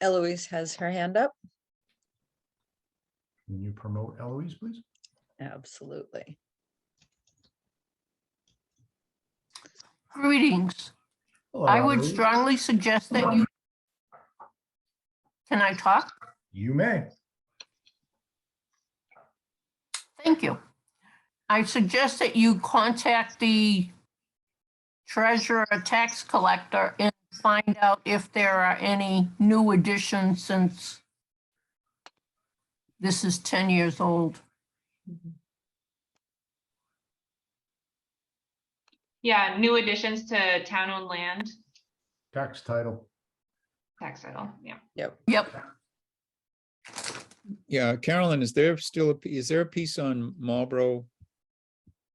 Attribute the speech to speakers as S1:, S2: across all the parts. S1: Eloise has her hand up.
S2: Can you promote Eloise, please?
S1: Absolutely.
S3: Greetings.
S2: Hello,
S3: I would
S2: Eloise.
S3: strongly suggest that you. Can I talk?
S2: You may.
S3: Thank you. I suggest that you contact the treasurer, tax collector, and find out if there are any new additions since this is 10 years old.
S4: Yeah, new additions to town-owned land,
S2: Tax title.
S4: tax title, yeah.
S3: Yep,
S5: Yeah, Carolyn, is there still, a p- is there a piece on Marlboro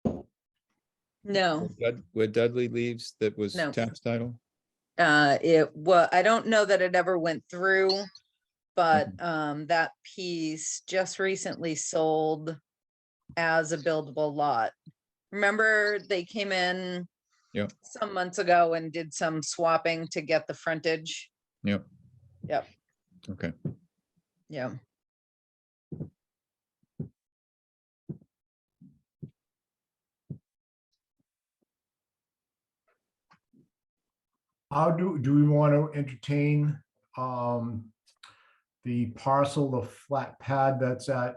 S1: No,
S5: where Dud- where Dudley leaves that was
S1: No.
S5: tax title?
S1: uh, it was, I don't know that it ever went through, but, um, that piece just recently sold as a buildable lot. Remember, they came in
S5: Yeah.
S1: some months ago and did some swapping to get the frontage.
S5: Yep.
S1: Yep.
S5: Okay.
S1: Yeah,
S2: How do, do we want to entertain um, the parcel, the flat pad that's at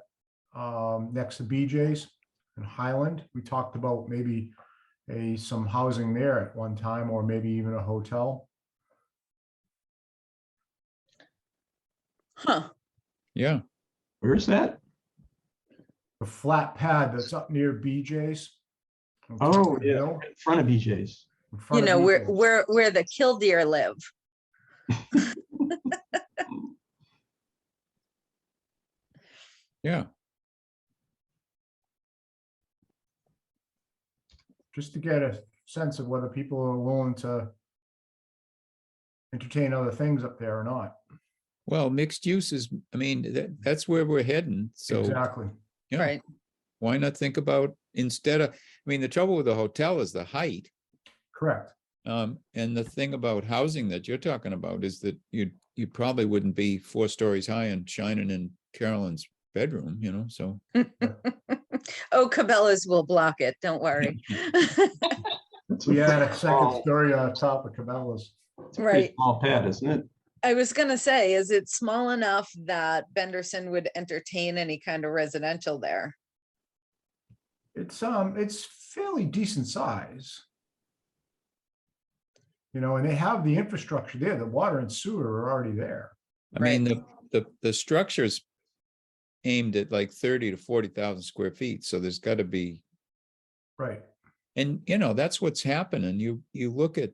S2: um, next to BJ's in Highland? We talked about maybe a, some housing there at one time, or maybe even a hotel.
S1: huh,
S5: Yeah,
S6: Where's that?
S2: The flat pad that's up near BJ's. on top
S6: Oh,
S2: of the
S6: yeah,
S2: hill,
S6: right in front of E BJ's.
S2: in
S1: you
S2: front of
S1: know, where,
S2: BJ's.
S1: where, where the killdeer live.
S5: yeah.
S2: just to get a sense of whether people are willing to entertain other things up there or not.
S5: Well, mixed use is, I mean, that, that's where we're heading. So
S2: Exactly.
S5: Yeah.
S1: Right,
S5: why not think about instead of, I mean, the trouble with the hotel is the height.
S2: Correct.
S5: Um, and the thing about housing that you're talking about is that you, you probably wouldn't be four stories high and shining in Carolyn's bedroom, you know, so.
S1: oh, Cabela's will block it, don't worry.
S6: That's a
S2: We had a second
S6: pretty small-
S2: story on top of Cabela's.
S6: it's a pretty
S1: Right.
S6: Small pad, isn't it?
S1: I was gonna say, is it small enough that Benderson would entertain any kind of residential there?
S2: It's, um, it's fairly decent size. You know, and they have the infrastructure there. The water and sewer are already there.
S5: I mean, the, the, the structure's aimed at like thirty to forty thousand square feet, so there's gotta be,
S2: Right.
S5: and you know, that's what's happening, you, you look at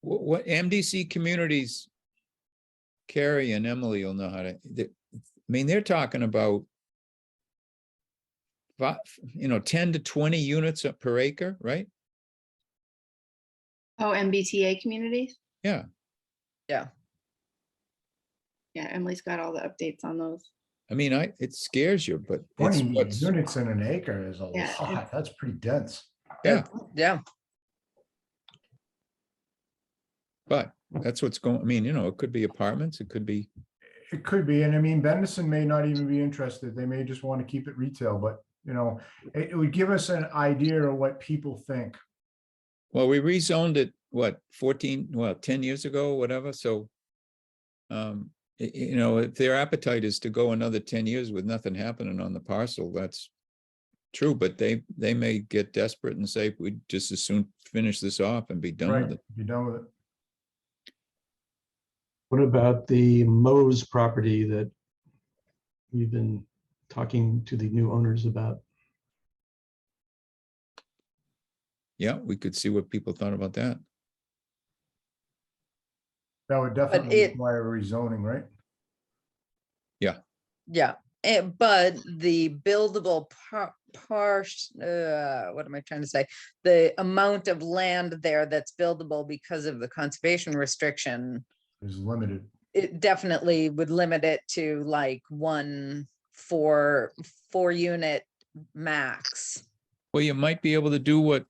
S5: what, what MDC communities, Carrie and Emily will know how to, they- I mean, they're talking about fi- you know, ten to twenty units per acre, right?
S7: Oh, MBTA communities?
S5: Yeah.
S1: Yeah.
S7: Yeah, Emily's got all the updates on those.
S5: I mean, I, it scares you, but it's
S2: Twenty
S5: what's,
S2: units in an acre is a
S7: Yeah.
S2: lot. That's pretty dense.
S1: Yeah,
S5: but that's what's going, I mean, you know, it could be apartments, it could be
S2: It could be, and I mean, Bendison may not even be interested. They may just want to keep it retail, but you know, it, it would give us an idea of what people think.
S5: Well, we rezoned it, what, fourteen, well, ten years ago, whatever, so. Um, y- you know, if their appetite is to go another ten years with nothing happening on the parcel, that's. True, but they, they may get desperate and say, we'd just as soon finish this off and be done
S2: Right,
S5: with it.
S2: be done with it.
S6: What about the Mo's property that we've been talking to the new owners about?
S5: Yeah, we could see what people thought about that.
S2: That would definitely
S1: it-
S2: require rezoning, right?
S1: yeah, Eh, but the buildable par- par- uh, what am I trying to say? The amount of land there that's buildable because of the conservation restriction,
S2: Is limited.
S1: it definitely would limit it to like one, four, four unit max.
S5: Well, you might be able to do what